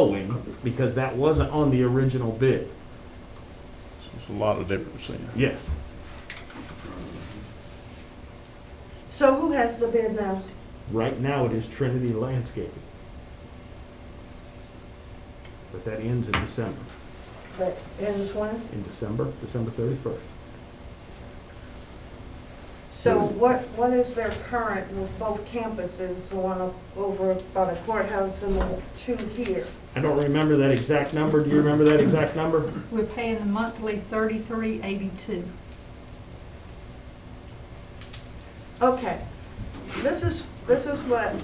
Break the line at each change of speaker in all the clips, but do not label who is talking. mowing, because that wasn't on the original bid.
There's a lot of difference there.
Yes.
So who has the bid now?
Right now, it is Trinity Landscaping. But that ends in December,
That ends when?
in December, December thirty-first.
So what, what is their current with both campuses, the one up over by the courthouse and the two here?
I don't remember that exact number, do you remember that exact number?
We're paying a monthly thirty-three eighty-two.
Okay, this is, this is what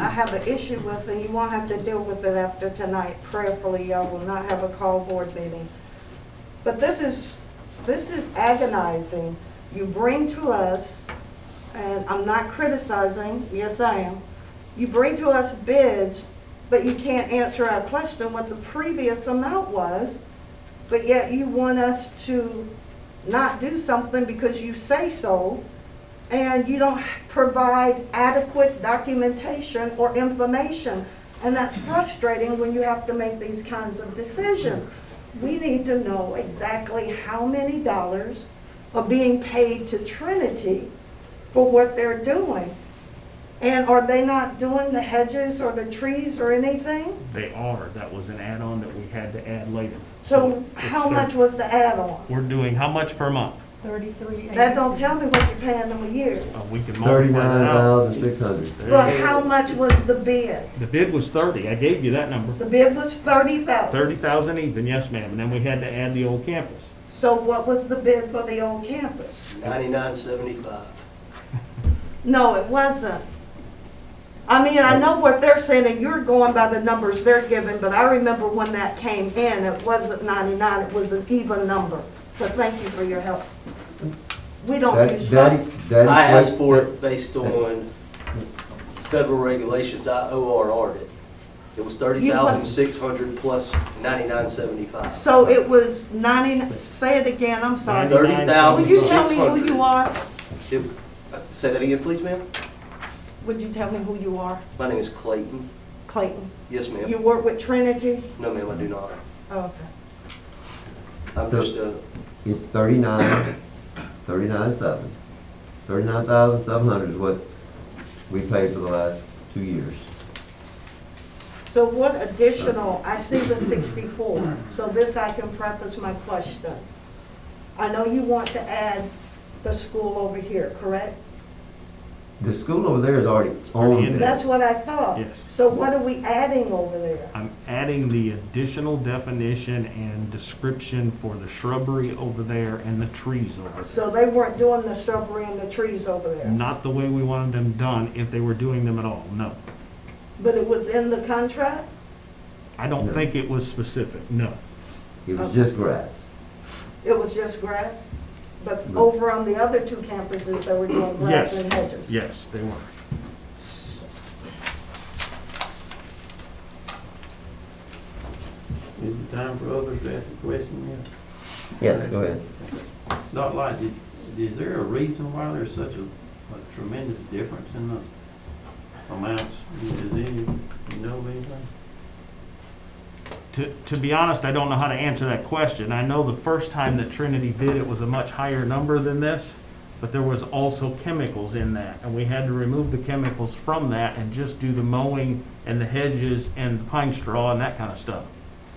I have an issue with, and you won't have to deal with it after tonight. Prayerfully, y'all will not have a call board meeting. But this is, this is agonizing. You bring to us, and I'm not criticizing, yes I am, you bring to us bids, but you can't answer our question what the previous amount was, but yet you want us to not do something because you say so, and you don't provide adequate documentation or information. And that's frustrating when you have to make these kinds of decisions. We need to know exactly how many dollars are being paid to Trinity for what they're doing. And are they not doing the hedges or the trees or anything?
They are, that was an add-on that we had to add later.
So
it's
how
thir-
much was the add-on?
We're doing how much per month?
Thirty-three eighty-two.
That don't tell me what you're paying them a year.
Uh, We can multiply
Thirty-nine
that out.
thousand six hundred.
But how much was the bid?
The bid was thirty, I gave you that number.
The bid was thirty thousand.
Thirty thousand even, yes ma'am, and then we had to add the old campus.
So what was the bid for the old campus?
Ninety-nine seventy-five.
No, it wasn't. I mean, I know what they're saying, and you're going by the numbers they're giving, but I remember when that came in, it wasn't ninety-nine, it was an even number. But thank you for your help. We don't
That,
use
that,
that.
that.
I asked
equates-
for it based on federal regulations, I ORR'd it. It was thirty thousand six hundred plus ninety-nine seventy-five.
So it was ninety, say it again, I'm sorry.
Thirty
Would
thousand
you
six
tell me who
hundred.
you are?
Say that again, please, ma'am?
Would you tell me who you are,
My name is Clayton.
Clayton?
Yes, ma'am?
You work with Trinity? Oh,
No, ma'am, I do not.
Okay.
I'm
So-
just a,
It's thirty-nine, thirty-nine seven. Thirty-nine thousand seven hundred is what we paid for the last two years.
So what additional, I see the 64, so this I can preface my question. I know you want to add the school over here, correct?
The school over there is already on
in
this.
That's what I thought.
Yes.
So what are we adding over there?
I'm adding the additional definition and description for the shrubbery over there and the trees over there.
So they weren't doing the shrubbery and the trees over there,
Not the way we wanted them done, if they were doing them at all, no.
but it was in the contract?
I don't think it was specific, no.
It was just grass.
It was just grass? But over on the other two campuses, they were doing grass
Yes.
and hedges?
Yes, they were.
Is it time for others to ask a question
Yes, go ahead.
yet? Dr. Light, did- is there a reason why there's such a a tremendous difference in the amounts? Is any, you know of anything?
To, to be honest, I don't know how to answer that question. I know the first time that Trinity bid, it was a much higher number than this, but there was also chemicals in that, and we had to remove the chemicals from that and just do the mowing and the hedges and the pine straw and that kind of stuff.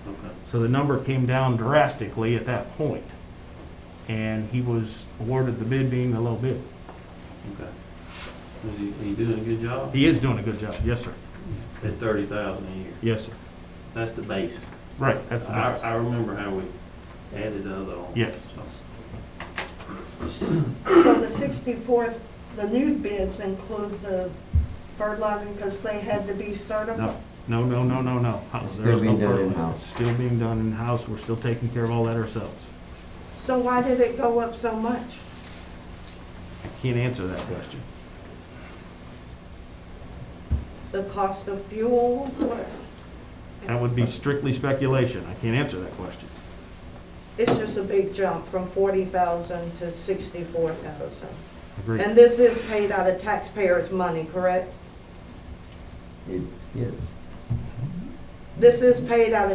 Okay.
So the number came down drastically at that point. And he was awarded the bid being the low bid.
Okay. Is he, he doing a good job?
He is doing a good job. Yes, sir.
At thirty thousand a year,
Yes, sir.
that's the base.
Right, that's the
I, I
best.
remember how we added the other on.
Yes.
So,
So the 64th, the new bids include the fertilizing because they had to be certified?
No, no, no, no, no, no.
It's
There is
still
no
being done
permit.
in-house.
It's Still being done in-house. We're still taking care of all that ourselves.
So why did it go up so much?
I Can't answer that question.
The cost of fuel? what?
That would be strictly speculation. I can't answer that question.
It's just a big jump from 40,000 to 64,000.
Agreed.
And this is paid out of taxpayers' money, correct?
It, yes.
This is paid out of